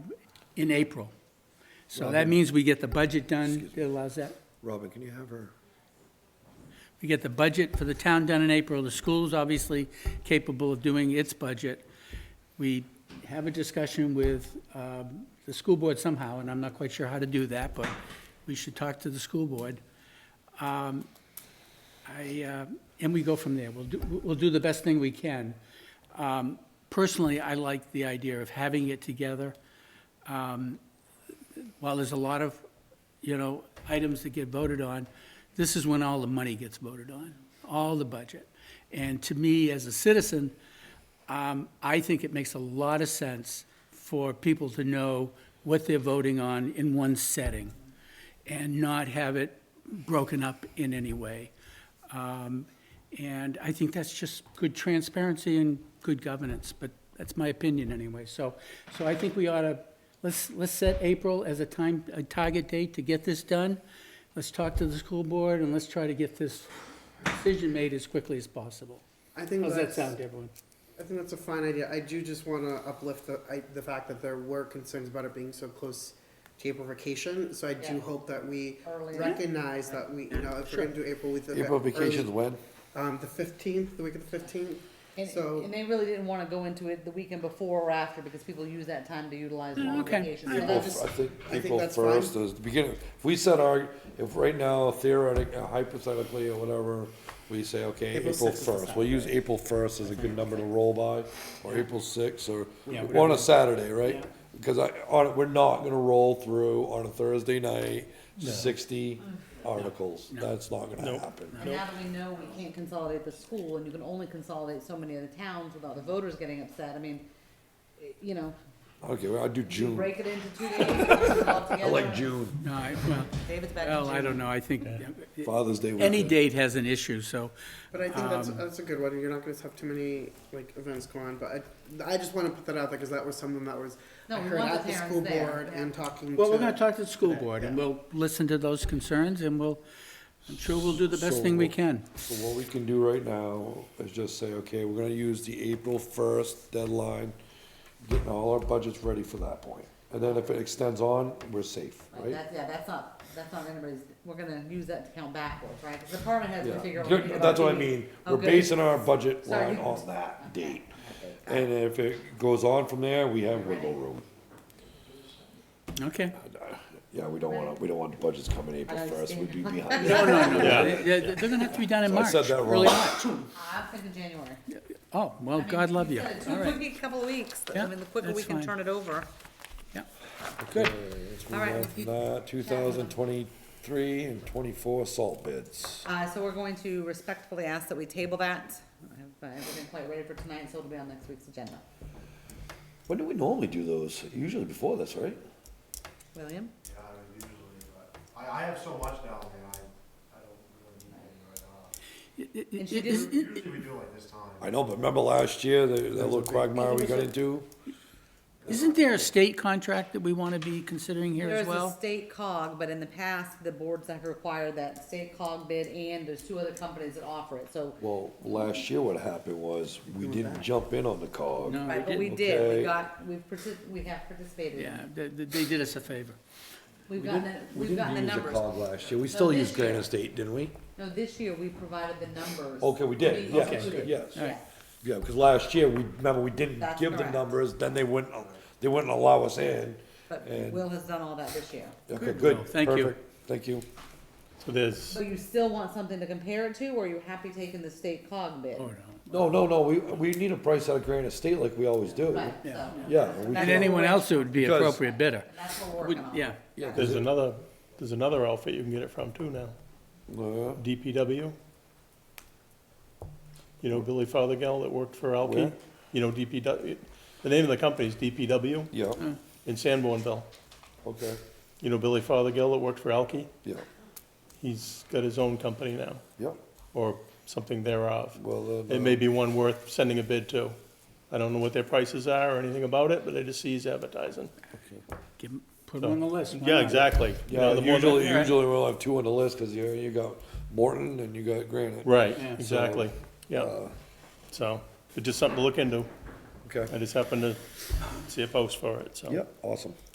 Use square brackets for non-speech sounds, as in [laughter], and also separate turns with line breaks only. in April. So that means we get the budget done, it allows that.
Robin, can you have her?
We get the budget for the town done in April, the school's obviously capable of doing its budget. We have a discussion with um, the school board somehow, and I'm not quite sure how to do that, but we should talk to the school board. Um, I, uh, and we go from there, we'll do, we'll do the best thing we can. Um, Personally, I like the idea of having it together. while there's a lot of, you know, items that get voted on, this is when all the money gets voted on, all the budget. And to me, as a citizen, um, I think it makes a lot of sense for people to know what they're voting on in one setting and not have it broken up in any way. Um, And I think that's just good transparency and good governance, but that's my opinion anyway. So, so I think we ought to, let's, let's set April as a time, a target date to get this done. Let's talk to the school board and let's try to get this decision made as quickly as possible.
I think
How's that
that's,
sound, everyone?
I think that's a fine idea. I do just want to uplift the, I, the fact that there were concerns about it being so close to April vacation. So I do
Yeah.
hope that we
Earlier.
recognize that we, you know, if we're going to do April, we think
April
that early-
vacation's when?
Um, the fifteenth, the week of the fifteenth.
And,
So-
and they really didn't wanna go into it the weekend before or after, because people use that time to utilize long
Mm, okay.
vacations. So
April,
that
just-
f- I think,
I think
April
that's
first
fine.
is the beginning. If we set our, if right now theoretic, uh, hypothetically or whatever, we say, okay,
April
April
6th is the
first, we'll use April first as a good number to roll by, or April sixth, or,
Yeah,
on a Saturday, right?
Yeah.
Because I, on, we're not gonna roll through on a Thursday night sixty articles. That's not gonna happen.
And now that we know we can't consolidate the school, and you can only consolidate so many of the towns without the voters getting upset, I mean, eh, you know,
Okay, well, I'll do
you
June.
break it into two days, put it all
[laughs] I
together.
like June.
No, I, well,
David's back in
well, I
June.
don't know, I think
Father's Day
any
weekend.
date has an issue, so.
But I think that's
Um,
that's a good one. You're not going to have too many like events go on. But I, I just want to put that out there because that was something that was
No,
I
we
heard
want
at
the
the
parents
school
there,
board
yeah.
and talking.
Well,
to,
we're gonna talk to the school board, and
yeah.
we'll listen to those concerns, and we'll, I'm sure we'll do the best thing we
So-
can.
So what we can do right now is just say, okay, we're gonna use the April first deadline, getting all our budgets ready for that point. And then if it extends on, we're safe,
Right,
right?
that's- yeah, that's not, that's not anybody's, we're gonna use that to count backwards, right? 'Cause The department has to
Yeah,
figure out. what we
Good,
need
that's what
about
I
the-
mean, we're
Okay.
basing our budget
Oh, Sorry.
line on that date. And if it goes on from there, we have wiggle room. [laughs]
Okay.
Yeah, we don't wanna, we don't want budgets coming April
I
first, we'd be
understand.
behind.
No, no, no, they- they- they're gonna have to be done in
So I
March,
said that
early
wrong.
March.
[laughs] I'm thinking January.
Oh, well, God love you.
Said it
All
took
right,
a couple of weeks,
Yeah,
I mean, the quicker we
that's
can
fine.
turn it over.
yeah.
All right, if you-
uh, two thousand twenty-three and twenty-four salt bids.
Uh, so we're going to respectfully ask that we table that. I have uh, everything quite ready for tonight, so it'll be on next week's agenda.
When do we normally do those? Usually before this, right?
William?
Yeah, I mean, usually, but I, I have so much down there, I, I don't really need anything right now.
And she didn't,
Usually we do it like this time.
I know, but remember last year, the, that little quagmire we got into?
Isn't there a state contract that we wanna be considering here as
there's a
well?
state cog, but in the past, the boards have required that state cog bid and there's two other companies that offer it,
Oh,
so.
Well, last year what happened was, we didn't jump in on the cog.
No,
Right,
they
but we
didn't.
did,
Okay.
we got, we've partic- we have participated. in it.
Yeah, they, they they did us a favor.
We've gotten, the- we've gotten the numbers.
last year, we
still used this year. Granite
State, didn't we?
No, this year, we provided the numbers.
Okay, we did,
These
yes,
included.
yes.
Yeah.
Yeah, because last year, we, remember, we didn't
That's
give the
correct.
numbers, then they wouldn't, they wouldn't allow us in.
But
And-
Will has done all that this year.
Okay, good.
Well, thank you.
perfect, Thank you.
So there's,
So you still want something to compare it to, or are you happy taking the state cog bid?
Oh, no.
No, no, no, we, we need a price out of Granite State like we always do.
Right, so,
Yeah. we
And
can't-
anyone else who would be
Because-
appropriate bidder.
that's what we're working on.
Yeah,
Yeah, 'cause
there's
it-
another, there's another outfit you can get it from too now,
uh,
DPW. You know Billy Fothergill that worked for
Where?
Alki? You know DPW, the name of the company is DPW
Yeah,
in Sanbornville.
okay,
You know Billy Fothergill that worked for Alki?
yeah,
He's got his own company now,
yeah,
or something thereof.
well, then.
It
uh,
may be one worth sending a bid to. I don't know what their prices are or anything about it, but I just see he's advertising.
give 'em- put them on the list. why
Yeah,
not?
exactly. You know,
Yeah,
the more the-
usually, usually we'll have two on the list, cause you, you got Morton and you uh, got Granite.
Right,
Yeah.
exactly, yeah. So, it's just something to look into.
Okay.
I just happened to see a post for it, so.
Yep, awesome.